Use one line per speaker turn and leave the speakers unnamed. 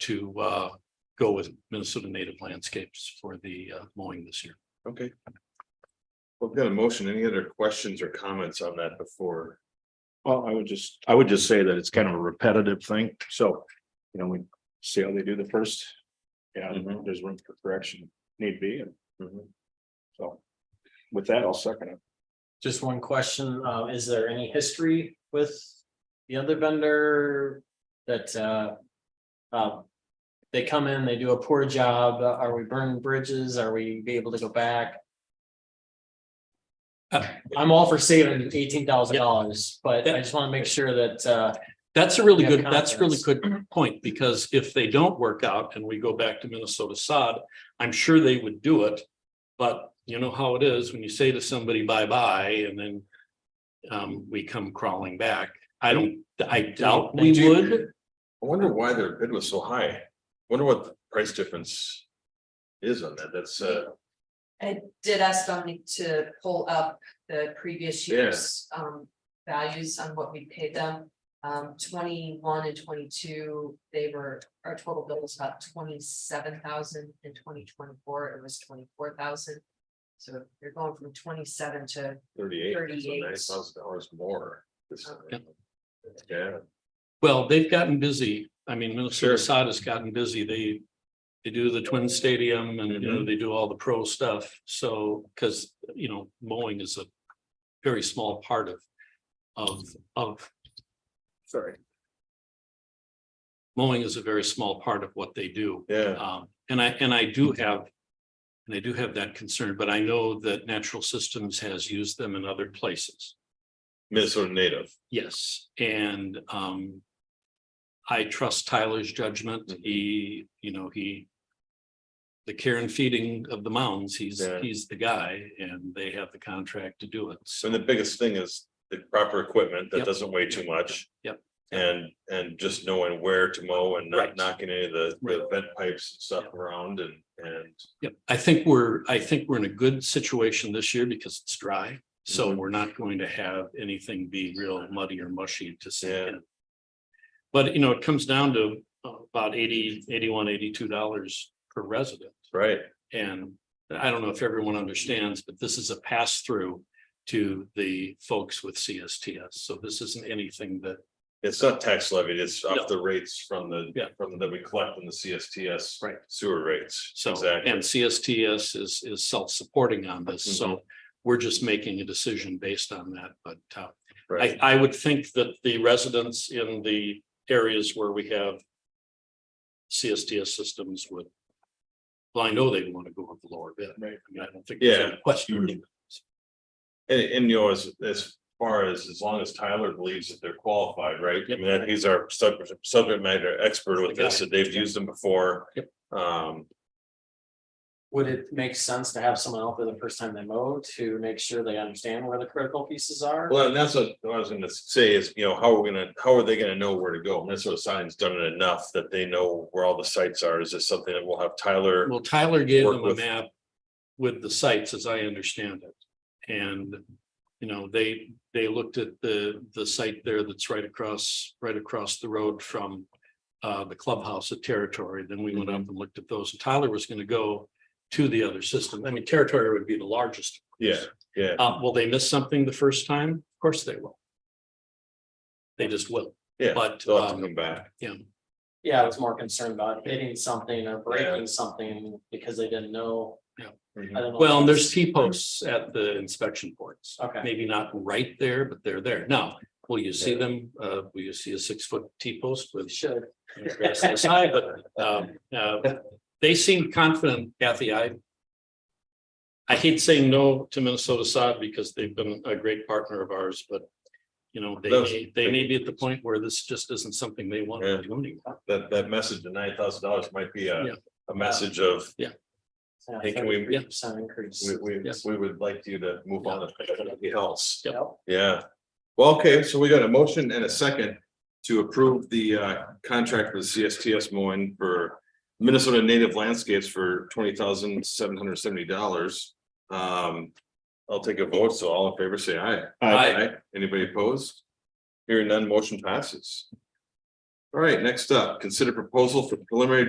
to uh go with Minnesota Native Landscapes for the uh, mowing this year.
Okay. Well, We've got a motion. Any other questions or comments on that before?
Well, I would just, I would just say that it's kind of a repetitive thing, so, you know, we see how they do the first. Yeah,
Mhm.
there's room for correction need be, and
Mhm.
so with that, I'll second it.
Just one question, uh, is there any history with the other vendor that, uh. Um, they come in, they do a poor job, are we burning bridges, are we be able to go back?
Uh,
I'm all for saving eighteen thousand dollars, but I just wanna make sure that, uh,
That's a really
Have
good, that's a really
confidence. Mm-hmm.
good point, because if they don't work out and we go back to Minnesota sod, I'm sure they would do it. But you know how it is when you say to somebody bye-bye and then um, we come crawling back. I don't, I doubt we
Do you-
would.
I wonder why their bid was so high. Wonder what the price difference is on that. That's uh,
I did ask Dominic to pull up the previous
Yeah.
year's um values on what we paid them. Um twenty-one and twenty-two, they were, our total bill was about twenty-seven thousand in twenty twenty-four, it was twenty-four thousand. So you're going from twenty-seven to,
thirty-eight, so
38.
nine thousand dollars more. This-
Yep.
Yeah,
Well, they've gotten busy. I mean, Minnesota
Sure.
sod has gotten busy. They they do the twin stadium and, you know, they do all the pro stuff. So, because, you know, mowing is a very small part of of of
sorry,
mowing is a very small part of what they do.
yeah.
Um, and I, and I do have, and I do have that concern, but I know that Natural Systems has used them in other places.
Minnesota native.
Yes, and, um, I trust Tyler's judgment.
Mm-hmm.
He, you know, he, the care and feeding of the mounds, he's,
Yeah.
he's the guy and they have the contract to do it.
So
So,
the biggest thing is the proper equipment that
Yep.
doesn't weigh too much.
Yep.
And, and just knowing where to mow and
Right.
not knocking any of the, the
Right.
vent pipes and stuff
Yep.
around and, and.
yeah, I think we're, I think we're in a good situation this year because it's dry. So
Mhm.
we're not going to have anything be real muddy or mushy to see.
Yeah.
in. But, you know, it comes down to uh, about eighty, eighty-one, eighty-two dollars per resident.
Right.
And I don't know if everyone understands, but this is a pass through to the folks with CSTS. So this isn't anything that,
It's not tax levied, it's
No.
off the rates from the,
Yeah.
from that we collect from the CSTS.
Right.
Sewer rates.
so,
Exactly.
and CSTS is, is self-supporting on this.
Mm-hmm.
So we're just making a decision based on that. But uh, I,
Right,
I would think that the residents in the areas where we have CSTS systems would, well, I know they want to go with the lower bid.
Right.
I mean, I don't think there's any question.
and, and you know, as, as far as, as long as Tyler believes that they're qualified, right? I
Yep.
mean, that- he's our subject, subject matter expert with
The
this,
guy.
that they've used them before.
Yep.
Um,
would it make sense to have someone out there the first time they mow to make sure they understand where the critical pieces are?
Well, and that's what I was gonna say is, you know, how are we gonna, how are they gonna know where to go? Minnesota Sign's done it enough that they know where all the sites are. Is this something that we'll have Tyler?
Well, Tyler gave
work
them a
with-
map with the sites, as I understand it. And, you know, they, they looked at the, the site there that's right across, right across the road from uh, the clubhouse at Territory. Then we went up
Mm-hmm.
and looked at those. Tyler was gonna go to the other system. I mean, Territory would be the largest.
Yeah, yeah.
Uh, will they miss something the first time? Of course they will. They just will.
Yeah,
But,
They'll have to
um,
come back.
yeah,
Yeah, I was more concerned about hitting something or
Yeah.
breaking something because they didn't know. I don't know.
Well, and there's T posts at the inspection points.
Okay.
Maybe not right there, but they're there. Now, will you see them? Uh, will you see a six foot T post with?
Should.
grass on the side? But um, uh, they seem confident, Kathy. I. I hate saying no to Minnesota sod because they've been a great partner of ours, but. You know, they, may- they may be at the point where this just isn't something they want to do anymore.
That, that message of nine thousand dollars might be
Yeah.
a, a message of, Hey, can we-
Percent increase.
we, we,
Yeah.
we would like you to move on to something else.
Yep.
Yep.
Yeah. Well, okay, so we got a motion and a second to approve the uh contract with CSTS Moen for Minnesota Native Landscapes for twenty thousand seven hundred seventy dollars. Um, I'll take a vote, so all in favor, say aye.
Aye.
Anybody opposed? Hearing none, motion passes. All right, next up, consider proposal for preliminary